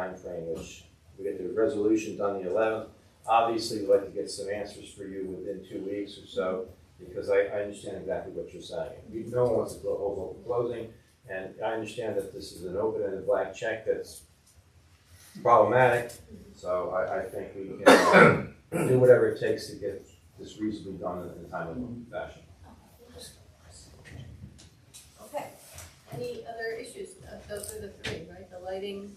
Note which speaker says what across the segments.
Speaker 1: timeframe, which we get the resolution done the eleventh. Obviously, we'd like to get some answers for you within two weeks or so, because I, I understand exactly what you're saying. You- No one wants to go hold open closing, and I understand that this is an open-ended black check that's problematic, so I, I think we can uh, do whatever it takes to get this reasonably done in a timely fashion.
Speaker 2: Okay, any other issues? Uh, Those are the three, right? The lighting,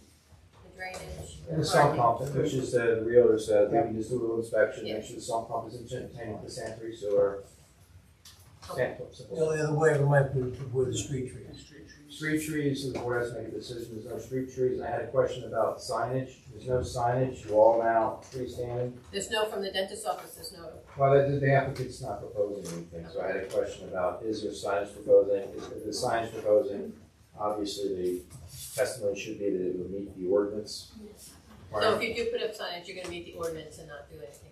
Speaker 2: the drainage.
Speaker 1: And the sump
Speaker 2: parking.
Speaker 1: pump, which is the realtor said, we can just do a little inspection, make sure the sump pump is in containment with the sanitary sewer. Sand pumps.
Speaker 3: The only other way we might be to avoid the street trees.
Speaker 1: Street trees, and the board has to make a decision, there's no street trees, I had a question about signage, there's no signage, wall mount, freestanding.
Speaker 2: There's no from the dentist's office, there's no,
Speaker 1: Well, the, the applicant's not proposing anything, so I had a question about, is there signage proposing, is if the signage proposing? Obviously, the testimony should be that it would meet the ordinance.
Speaker 2: so if you do put up signage, you're gonna meet the ordinance and not do anything.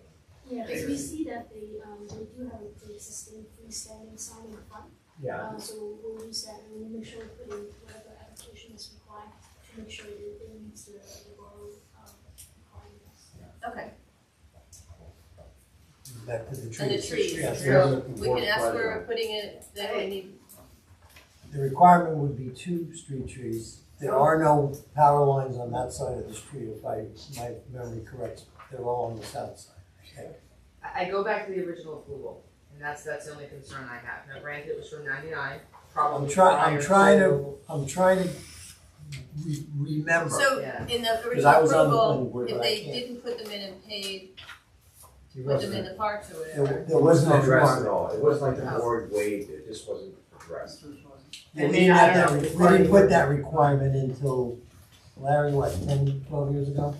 Speaker 4: Yeah, because we see that they, um, they do have the existing freestanding sign in front.
Speaker 1: Yeah,
Speaker 4: Uh, so we'll- we'll use that and we'll make sure we put in whatever application is required to make sure that it meets the, the borough, um, requirements.
Speaker 2: Okay,
Speaker 3: Back to the trees.
Speaker 2: and the trees,
Speaker 3: Yes,
Speaker 1: there's
Speaker 2: so
Speaker 1: a
Speaker 2: we can ask
Speaker 1: board
Speaker 2: for putting it, that we need,
Speaker 3: The requirement would be two street trees. There are no power lines on that side of the street, if I, my memory corrects. They're all on the south side.
Speaker 5: I, I go back to the original approval, and that's, that's the only concern I have. Now granted, it was from ninety-nine, probably.
Speaker 3: I'm try- I'm
Speaker 5: prior
Speaker 3: trying to- I'm trying to re- remember.
Speaker 2: so
Speaker 5: Yeah.
Speaker 2: in the
Speaker 3: I
Speaker 2: original
Speaker 3: was on the planning
Speaker 2: approval,
Speaker 3: board,
Speaker 2: if
Speaker 3: but I
Speaker 2: they
Speaker 3: can't.
Speaker 2: didn't put them in and paid, put them
Speaker 3: There
Speaker 2: in
Speaker 3: wasn't-
Speaker 2: the parks or
Speaker 3: there
Speaker 2: whatever.
Speaker 3: there
Speaker 1: It wasn't
Speaker 3: no
Speaker 1: addressed at
Speaker 3: requirement.
Speaker 1: all, it wasn't like the board waived, it just wasn't addressed.
Speaker 3: We didn't
Speaker 5: And then I
Speaker 3: have that,
Speaker 5: don't know,
Speaker 3: re- we
Speaker 5: required-
Speaker 3: didn't put that requirement until, Larry, what, 10, 12 years ago?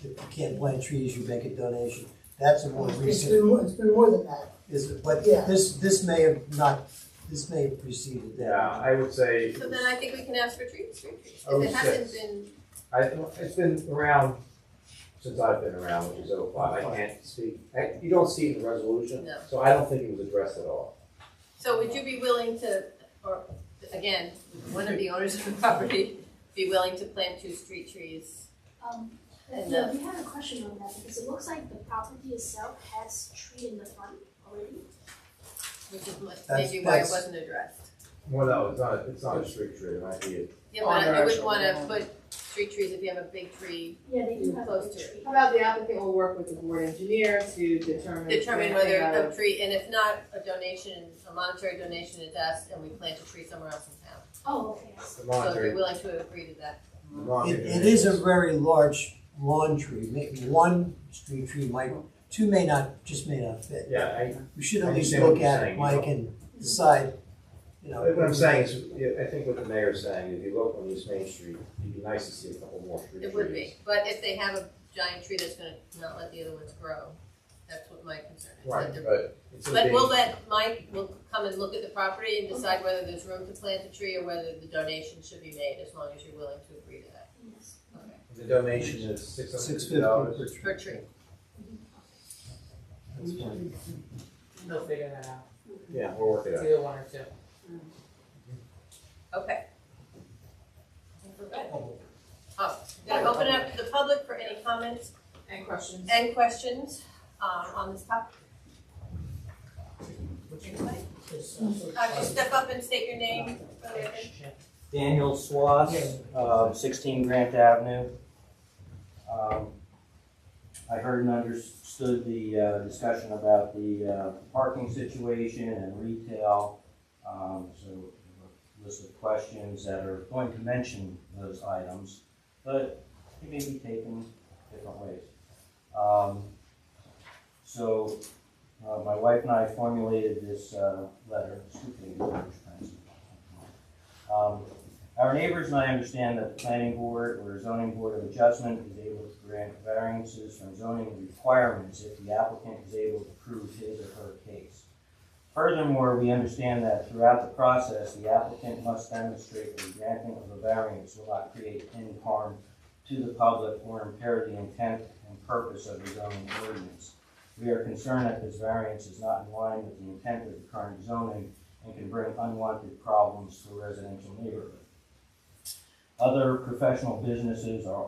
Speaker 3: If you can't plant trees, you make a donation. That's a more
Speaker 6: It's
Speaker 3: recent.
Speaker 6: been, more- it's been more than that.
Speaker 3: Is it, but
Speaker 6: Yeah.
Speaker 3: this, this may have not, this may have preceded
Speaker 1: Yeah,
Speaker 3: that.
Speaker 1: I would say,
Speaker 2: So then I think we can ask for trees, street trees,
Speaker 1: Oh,
Speaker 2: if it hasn't
Speaker 1: six.
Speaker 2: been,
Speaker 1: I, it's been around since I've been around, which is oh five, I can't speak, I, you don't see it in the resolution,
Speaker 2: No.
Speaker 1: so I don't think it was addressed at all.
Speaker 2: So would you be willing to, or, again, one of the owners of the property, be willing to plant two street trees?
Speaker 4: Um,
Speaker 2: And uh,
Speaker 4: yeah,
Speaker 2: the-
Speaker 4: we had a question on that because it looks like the property itself has tree in the front already.
Speaker 2: Which is what-
Speaker 3: That's-
Speaker 2: maybe why it
Speaker 3: that's-
Speaker 2: wasn't addressed.
Speaker 1: Well, no, it's not, it's not a street tree, it might be a
Speaker 2: Yeah, but I- I would wanna
Speaker 7: Oh, no.
Speaker 2: put street trees if you have a big tree,
Speaker 4: Yeah, they do have a
Speaker 2: Close
Speaker 4: big
Speaker 2: to it.
Speaker 4: tree.
Speaker 7: How about the applicant will work with the board engineer to determine.
Speaker 2: determine
Speaker 7: when they
Speaker 2: whether
Speaker 7: have-
Speaker 2: a tree, and if not, a donation, a monetary donation is asked, and we plant a tree somewhere else in town.
Speaker 4: Oh, okay, I
Speaker 2: So
Speaker 4: see.
Speaker 2: if you're
Speaker 1: monetary,
Speaker 2: willing to agree to that,
Speaker 3: It, it is a very large lawn tree, maybe one street tree might, two may not, just may not fit.
Speaker 1: Yeah, I,
Speaker 3: We should
Speaker 1: I
Speaker 3: at least
Speaker 1: understand what
Speaker 3: look
Speaker 1: you're
Speaker 3: at
Speaker 1: saying,
Speaker 3: it, Mike, and decide, you know.
Speaker 1: what I'm saying is, yeah, I think what the mayor's saying, if you look on East Main Street, it'd be nice to see a couple more street trees.
Speaker 2: it would be, but if they have a giant tree that's gonna not let the other ones grow, that's what my concern is. that
Speaker 1: Right,
Speaker 2: they're-
Speaker 1: but it's a
Speaker 2: But
Speaker 1: big,
Speaker 2: we'll let Mike, will come and look at the property and decide whether there's room to plant a tree or whether the donation should be made, as long as you're willing to agree to that.
Speaker 4: Yes.
Speaker 1: the donation is six hundred
Speaker 3: Six
Speaker 1: fifty
Speaker 3: fifty
Speaker 1: dollars.
Speaker 3: per
Speaker 2: For
Speaker 3: tree.
Speaker 2: a tree.
Speaker 3: That's fine.
Speaker 7: They'll figure that out,
Speaker 1: Yeah, we'll work it
Speaker 7: it's
Speaker 1: out.
Speaker 7: either one or two.
Speaker 2: Okay. Oh, gonna open it up to the public for any comments
Speaker 7: Any questions?
Speaker 2: and questions, um, on this topic. Anybody? Uh, just step up and state your name for
Speaker 3: Uh,
Speaker 2: the record.
Speaker 8: Daniel Swass, uh, sixteen Grant Avenue. Um, I heard and understood the, uh, discussion about the, uh, parking situation and retail. Um, so a list of questions that are going to mention those items, but it may be taken different ways. Um, so, uh, my wife and I formulated this, uh, letter, it's two pages, which is- Um, our neighbors and I understand that the planning board or zoning board of adjustment is able to grant variances from zoning requirements if the applicant is able to prove his or her case. Furthermore, we understand that throughout the process, the applicant must demonstrate that the granting of a variance will not create any harm to the public or impair the intent and purpose of the zoning ordinance. We are concerned that this variance is not in line with the intent of the current zoning and can bring unwanted problems to residential neighborhoods. Other professional businesses are